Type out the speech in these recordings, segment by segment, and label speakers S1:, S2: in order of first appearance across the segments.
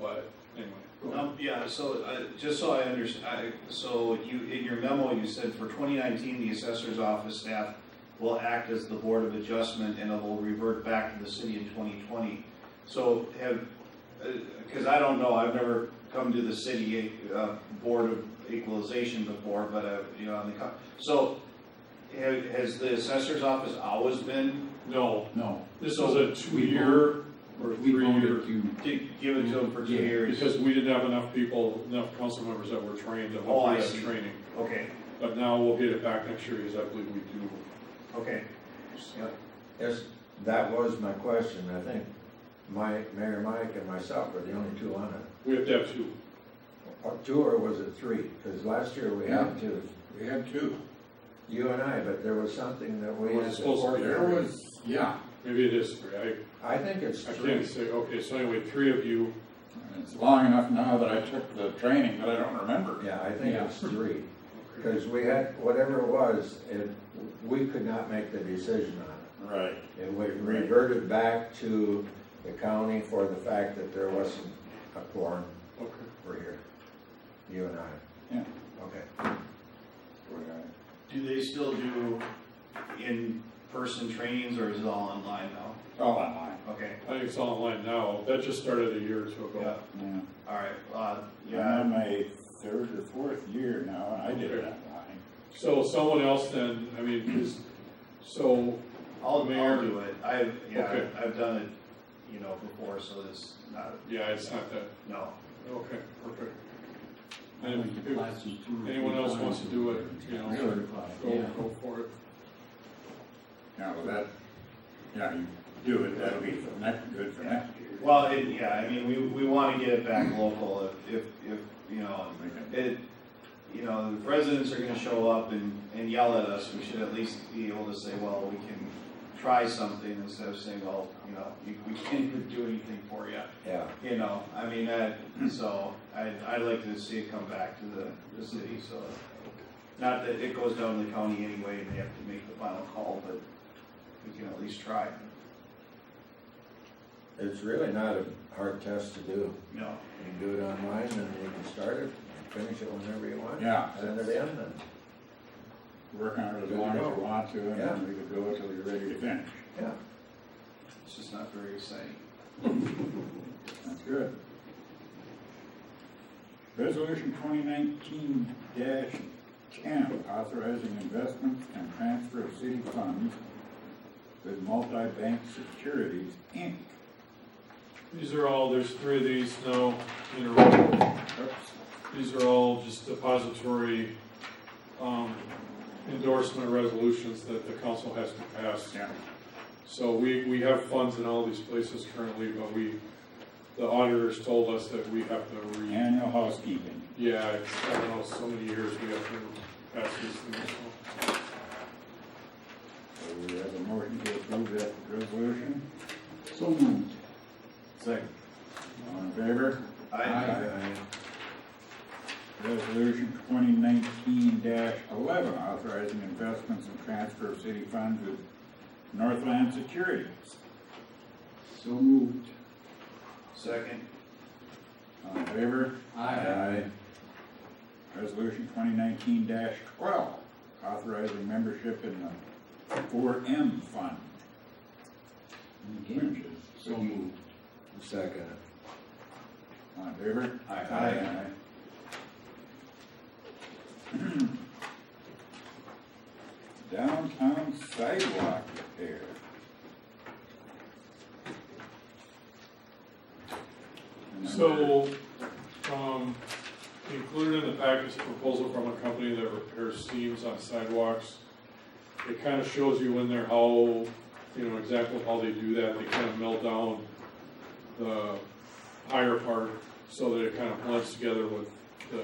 S1: but anyway. go on.
S2: Um, yeah, so, uh, just so I understand, so you, in your memo, you said for 2019, the assessor's office staff will act as the board of adjustment and it will revert back to the city in 2020. So have, because I don't know, I've never come to the city uh, board of equalization before, but, uh, you know, on the, co- so ha- has the assessor's office always been
S1: No,
S3: No,
S1: this
S2: So
S1: was a two-year or
S3: we voted
S1: three-year,
S3: to,
S2: gi- given to them for two
S3: Yeah,
S2: years?
S1: because we didn't have enough people, enough council members that were trained to
S2: Oh, I
S1: hold that
S2: see.
S1: training.
S2: Okay,
S1: But now we'll get it back next year, because I believe we do.
S2: okay.
S4: Yes, that was my question, I think. My, Mayor Mike and myself were the only two on it.
S1: We have to have two.
S4: Or Two or was it three? Because last year we had two,
S5: We had two.
S4: you and I, but there was something that we
S1: Was it
S4: had to
S1: supposed to be
S5: There
S4: coordinate.
S5: was, yeah,
S1: Maybe it is three. I,
S4: I think it's
S1: I can't
S4: three.
S1: say, okay, so anyway, three of you,
S5: it's long enough now that I took the training that I don't remember.
S4: Yeah, I think
S5: Yeah.
S4: it's three.
S1: okay,
S4: Because we had, whatever it was, it, we could not make the decision on it.
S5: Right.
S4: It was reverted back to the county for the fact that there wasn't a quorum
S1: okay.
S4: for here, you and I.
S5: Yeah.
S4: Okay.
S2: Do they still do in-person trainings or is it all online now?
S5: All online,
S2: Okay,
S1: I think it's online now. That just started a year or two
S2: yeah,
S1: ago.
S5: yeah.
S2: all right, uh,
S5: I'm
S2: yeah,
S5: in my third or fourth year now, and I did it online.
S1: So someone else then, I mean, is, so,
S2: I'll, I'll
S1: Mayor.
S2: do it. I've, yeah,
S1: Okay.
S2: I've done it, you know, before, so it's not,
S1: yeah, it's not that,
S2: no.
S1: okay, perfect. And if anyone else wants to do it, you know,
S5: Really?
S1: go, go for it.
S5: Yeah, well, that, yeah, you do it, that'll be for next, good for next year.
S2: Well, it, yeah, I mean, we, we wanna get it back local if, if, if, you know, it, you know, the residents are gonna show up and, and yell at us, we should at least be able to say, well, we can try something instead of saying, well, you know, we we can't do anything for you.
S4: Yeah.
S2: You know, I mean, that, so, I, I'd like to see it come back to the, the city, so. Not that it goes down to the county anyway, and they have to make the final call, but we can at least try,
S4: It's really not a hard test to do.
S2: you know.
S4: You can do it online and you can start it and finish it whenever you want.
S5: Yeah,
S4: Send it in and,
S5: work on it as
S4: Good to
S5: long as
S4: go.
S5: you want to, and
S4: Yeah.
S5: then we could go until you're ready to finish.
S4: yeah.
S2: It's just not very exciting.
S5: That's good. Resolution twenty nineteen ten, authorizing investments and transfer of city funds with multi-bank securities, Inc.
S1: These are all, there's three of these now in a row.
S5: Oops.
S1: These are all just depository um, endorsement resolutions that the council has to pass.
S5: Yeah,
S1: So we, we have funds in all these places currently, but we, the auditors told us that we have to re,
S5: annual housekeeping.
S1: yeah, it's, I don't know, so many years we have to pass these things. so.
S5: So we have a motion to approve that resolution.
S3: So moved.
S5: Second. All in favor?
S2: I,
S5: Resolution twenty nineteen eleven, authorizing investments and transfer of city funds with Northland Securities.
S3: So moved.
S2: second,
S5: All in favor? Aye. Resolution twenty nineteen twelve, authorizing membership in the four M fund.
S3: Again.
S5: Which is-
S3: So moved.
S4: Second.
S5: All in favor?
S2: Aye.
S5: Aye. Downtown sidewalk repair.
S1: So, um, included in the package, a proposal from a company that repairs seams on sidewalks. It kind of shows you in there how, you know, exactly how they do that, they kind of melt down the higher part, so that it kind of blends together with the,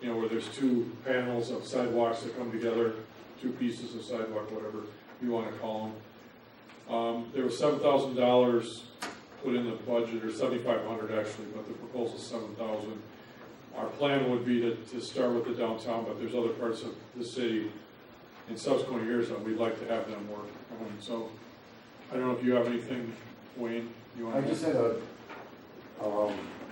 S1: you know, where there's two panels of sidewalks that come together, two pieces of sidewalk, whatever you wanna call them. Um, there was seven thousand dollars put in the budget, or seventy-five hundred actually, but the proposal's seven thousand. Our plan would be to, to start with the downtown, but there's other parts of the city in subsequent years that we'd like to have them work on, so. I don't know if you have anything, Wayne, you
S6: I
S1: want to?
S6: just had a, um,